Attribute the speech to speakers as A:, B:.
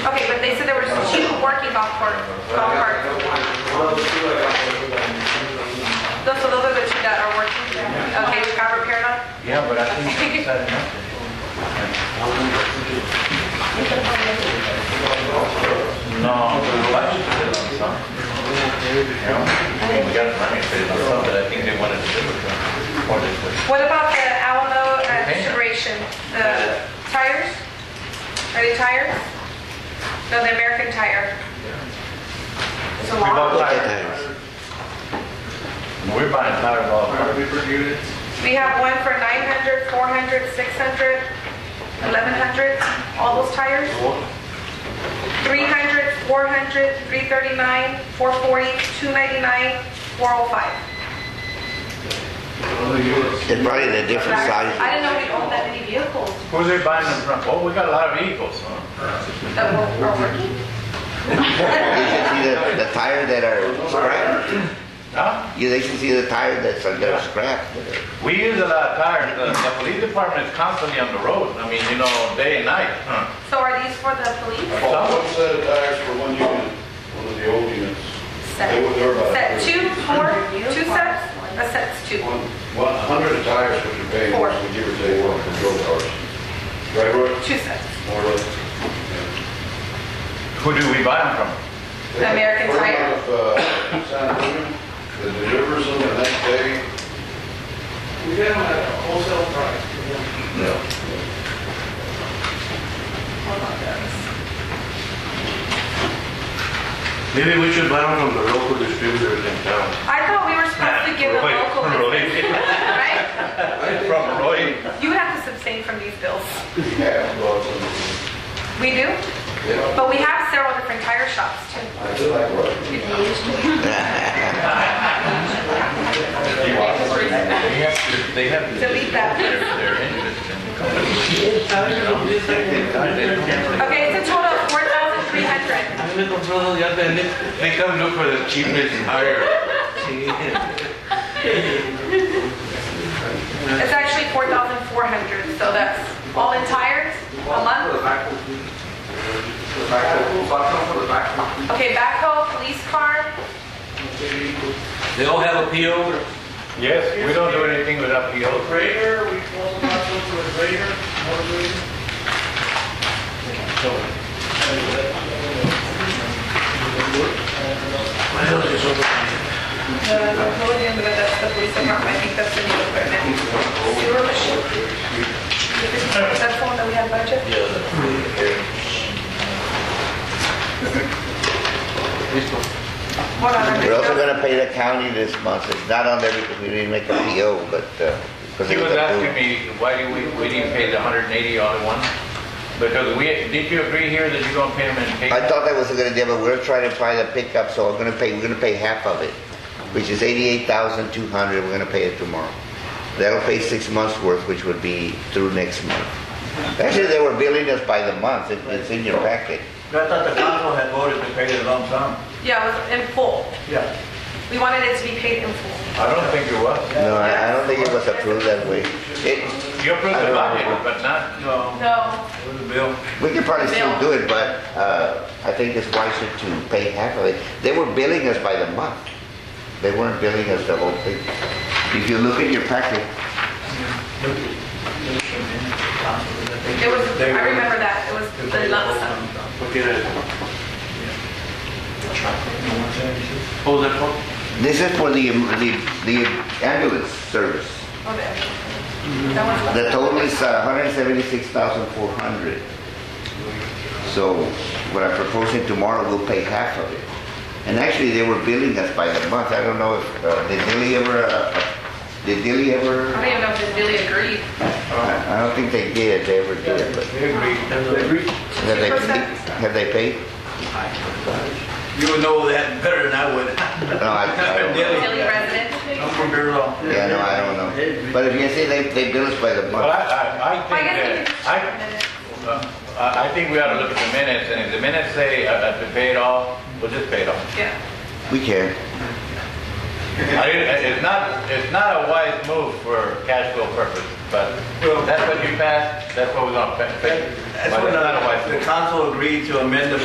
A: the golf court, golf cart. Those are those are the two that are working. Okay, we got repaired on?
B: Yeah, but I think that's had enough. No, why should we do it on something? We got the money to put it on something, I think they wanted to do it. Or they put-
A: What about the Alamo uh, duration, the tires? Are they tires? No, the American tire. It's a
B: We bought
A: lot.
B: tires. We're buying tires all over.
A: We have one for 900, 400, 600, 1100, all those tires. 300, 400, 339, 440, 299, 405.
C: They're probably the different
A: I
C: sizes.
A: didn't know we owned that many vehicles
B: Who's they buying them from? Oh, we got a lot of vehicles, huh?
A: that were are working.
C: You should see the, the tires that are scrapped.
B: Huh?
C: You, they should see the tires that's, uh, that are scrapped.
B: We use a lot of tires. The, the police department is constantly on the road. I mean, you know, day and night. huh?
A: So are these for the police?
D: Well, One set of tires for one unit, one of the old units.
A: Set,
D: They were- uh, they were about
A: set
D: three.
A: two, four, two sets? A set's two.
D: One, one hundred of tires which are paid,
A: Four.
D: we give or take one for drill cars. Right, Roy?
A: Two sets.
D: More or less.
B: Who do we buy them from?
D: They have
A: American
D: a firm
A: Tire.
D: out of, uh, San Antonio that delivers them the next day.
E: We get them at a wholesale price.
D: No.
F: Maybe we should buy them from the local distributors in town.
A: I thought we were supposed to give the
B: Roy,
A: local
B: Roy.
A: business, right?
B: From Roy.
A: You would have to abstain from these bills.
D: Yeah, well, um,
A: We do,
D: yeah,
A: but we have several different tire shops too.
D: I do like Roy.
B: They have to, they have to.
A: Delete that.
B: Their, their interest in the company.
A: Okay, it's a total of four thousand three hundred.
E: A mí me compró dos días de Netflix.
F: They come look for the cheapest tire.
A: It's actually four thousand four hundred, so that's all in tires, a month. Okay, backhoe, police car,
G: They all have a PO,
B: Yes, we don't do anything without POs.
E: Grader, we also got some for the grader, more grader.
A: the podium, but that's the police department, I think that's the new equipment. Sewer machine. That's the one that we had budget? Hold on, I'm
C: We're also
A: just-
C: gonna pay the county this month. It's not on there because we didn't make a PO, but, uh, because
B: He
C: it was
B: was asking
C: approved.
B: me, why do we, we didn't pay the hundred and eighty all at once? Because we, did you agree here that you're gonna pay them in
C: I
B: pay?
C: thought that was a good idea, but we're trying to find a pickup, so we're gonna pay, we're gonna pay half of it, which is eighty-eight thousand two hundred. We're gonna pay it tomorrow. That'll pay six months' worth, which would be through next month. Actually, they were billing us by the month. It- It's in your packet.
B: I thought the council had voted to pay the lump sum.
A: Yeah, it was in full.
B: Yeah.
A: We wanted it to be paid in full.
B: I don't think it was.
C: No, I I don't think it was approved that way. It,
B: You approved the
C: I
B: budget,
C: don't know.
B: but not,
A: No,
C: We could probably still do it, but uh, I think it's wiser to pay half of it. They were billing us by the month. They weren't billing us the whole thing. If you look at your packet,
A: it was, I remember that, it was the lump sum.
F: What did I? Oh, that one?
C: this is for the, the, the ambulance service.
A: Oh, there. That one's lump.
C: The total is uh, 176,400. So what I'm proposing tomorrow, we'll pay half of it. And actually, they were billing us by the month. I don't know if, uh, did Dilly ever, uh, did Dilly
A: I
C: ever?
A: don't even know if they really agreed.
C: I I don't think they did, they ever did, but. Have they, have they paid?
G: you would know that better than I would.
C: No, I, I don't know.
A: Hilly resident.
G: I'm from Beulah.
C: Yeah, no, I don't know. But if you say they, they bill us by the
B: well, I,
C: month,
B: I, I
A: Well, I guess we could
B: think
A: just
B: that,
A: check a
B: I,
A: minute.
B: uh, I I think we ought to look at the minutes, and if the minutes say, uh, uh, to pay it all, we'll just pay it all.
A: Yeah.
C: we can.
B: I mean, It's not, it's not a wise move for cash flow purposes, but uh, that's what you passed, that's what we're gonna pay. But it's not a wise move.
G: The council agreed to amend the